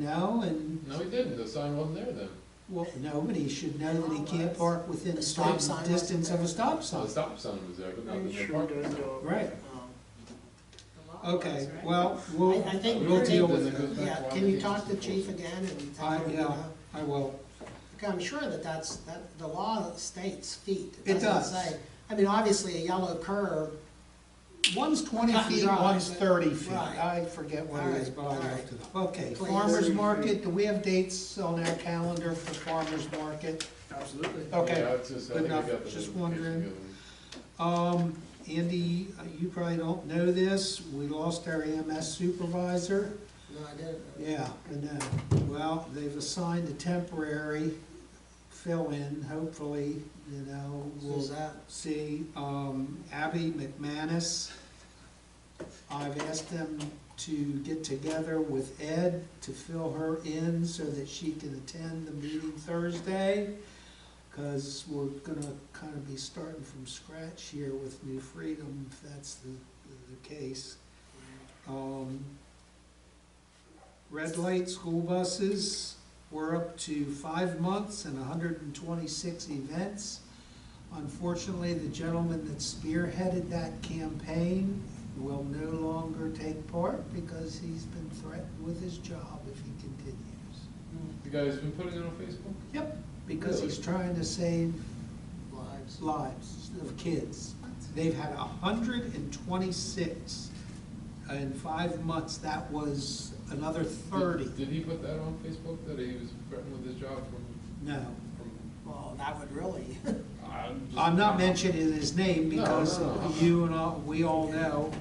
No, and, No, he didn't, the sign wasn't there then. well, nobody should know that he can't park within a The stop certain sign wasn't distance of a there. stop So sign. the stop sign was there, but not It the no sure parking does sign. though. Right, Um, okay, well, we'll, I, I think We'll we'll deal take, with it. yeah, can you talk to the chief again and? take I, a look at yeah, that? I will, Okay, I'm sure that that's, that, the law states feet. It doesn't does. say- I mean, obviously, a yellow curb, one's twenty Cut and feet, dry, one's but- thirty feet, right. I forget what it is, but I'll All right, look it up. Okay, Please. farmer's Thirty market, feet. do we have dates on our calendar for farmer's market? Absolutely. Okay. Yeah, it's just, I good think I enough. got the Just notification wondering. the other week. Um, Andy, uh, you probably don't know this, we lost our EMS supervisor. no, I didn't. Yeah, I know. Well, they've assigned a temporary fill-in, hopefully, you know, Who's we'll that? see. Um, Abby McManus, I've asked them to get together with Ed to fill her in so that she can attend the meeting Thursday. Cause we're gonna kinda be starting from scratch here with New Freedom, if that's the, the case. Um, Red light school buses, we're up to five months and hundred and twenty-six events. Unfortunately, the gentleman that spearheaded that campaign will no longer take part because he's been threatened with his job if he continues. You guys been putting it on Facebook? Yep, because he's Really? trying to save Lives. lives of kids. They've had hundred and twenty-six in five months, that was another thirty. Did- Did he put that on Facebook, that he was threatened with his job from, No, from? Well, that would really, I'm just- I'm not mentioning his name No, because no, no. you and I, we all know.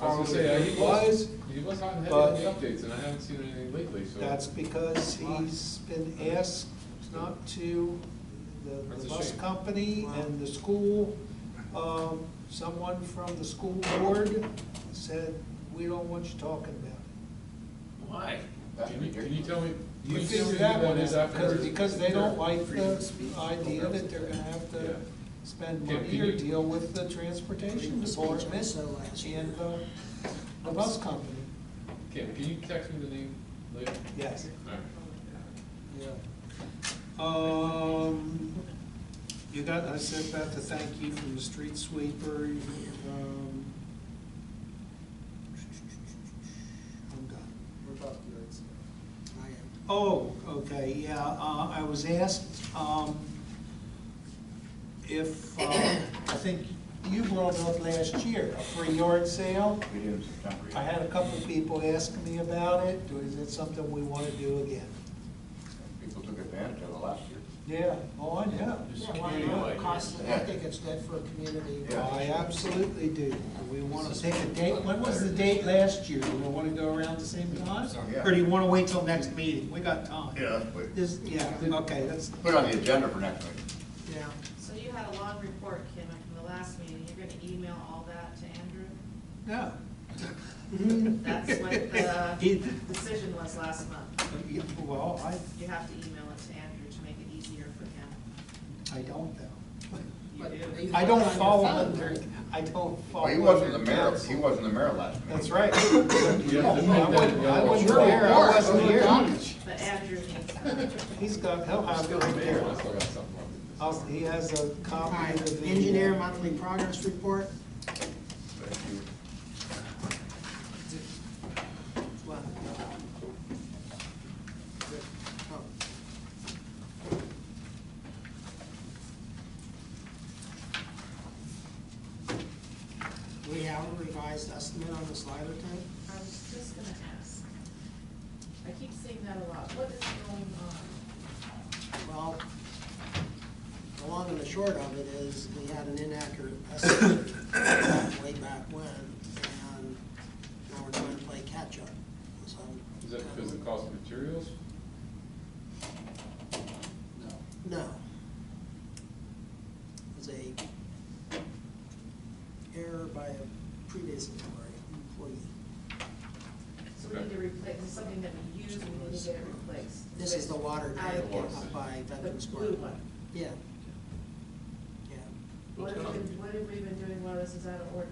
I was gonna say, uh, he was, he was hot and but- heavy in the updates, and I haven't seen anything lately, so. That's because he's been asked not to, the- That's the a bus shame. company and the school, um, someone from the school board said, we don't want you talking about it. Why? Can you, can you tell me? You can tell me figure who that one is out, because, afterwards? because they don't like Freedom the of speech. idea that they're gonna have Yeah. to spend Can- money can or you- deal with the transportation Freedom of speech department also last year. and the, the bus company, Kim, can you text me the name later? yes. Alright. yeah. Um, you got, I sent about the thank you from the street sweeper, you, um. I'm done. What about the lights? I am. Oh, okay, yeah, uh, I was asked, um, if, uh, I think you brought up last year, a free yard sale. We did in September. yeah. I had a couple of people ask me about it, is it something we wanna do again? People took advantage of it last year. Yeah, oh, I know. Just Yeah, why not? community-wide. Cost, I think it's good for a community. Yeah. I absolutely do. We want to take a date, when was the date last year? Do we want to go around the same time? Yeah. Or do you want to wait till next meeting? We got time. Yeah, that's what- This, yeah, okay, that's, put it on the agenda for next week. Yeah. So you had a long report, Kim, from the last meeting, you're gonna email all that to Andrew? no. That's what the He- decision was last month, Well, I, you have to email it to Andrew to make it easier for him. I don't though. But You do. they- I don't follow On your under, I don't follow. Well, he wasn't the under mayor, he council. wasn't the mayor last meeting. That's right. You have to make I wasn't, I that- wasn't Sure. there, I wasn't here. But Andrew needs that. He's got, he'll have it right there. I still got something on this. I'll- He has a All copy right, of the. engineer monthly progress report. Thank you. What? Oh. We have a revised estimate on the slider tank? I was just gonna ask, I keep seeing that a lot, what is going on? Well, the long and the short of it is, we had an inaccurate estimate way back when, and now we're trying to play catch-up, so. um, Is that because of the cost of materials? No. It was a error by a previous employee. So we need to replace, it's something that we use, we need to get it replaced. This is the water I- tank water tank. by The Veterans Court. blue one. Yeah. Yeah. What have we, been- what have we been doing while this is out of order?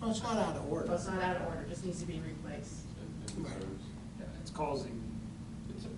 Well, it's not out of order. Well, it's not out of order, it just needs to be replaced. And- and Right. reserves. Yeah, It's causing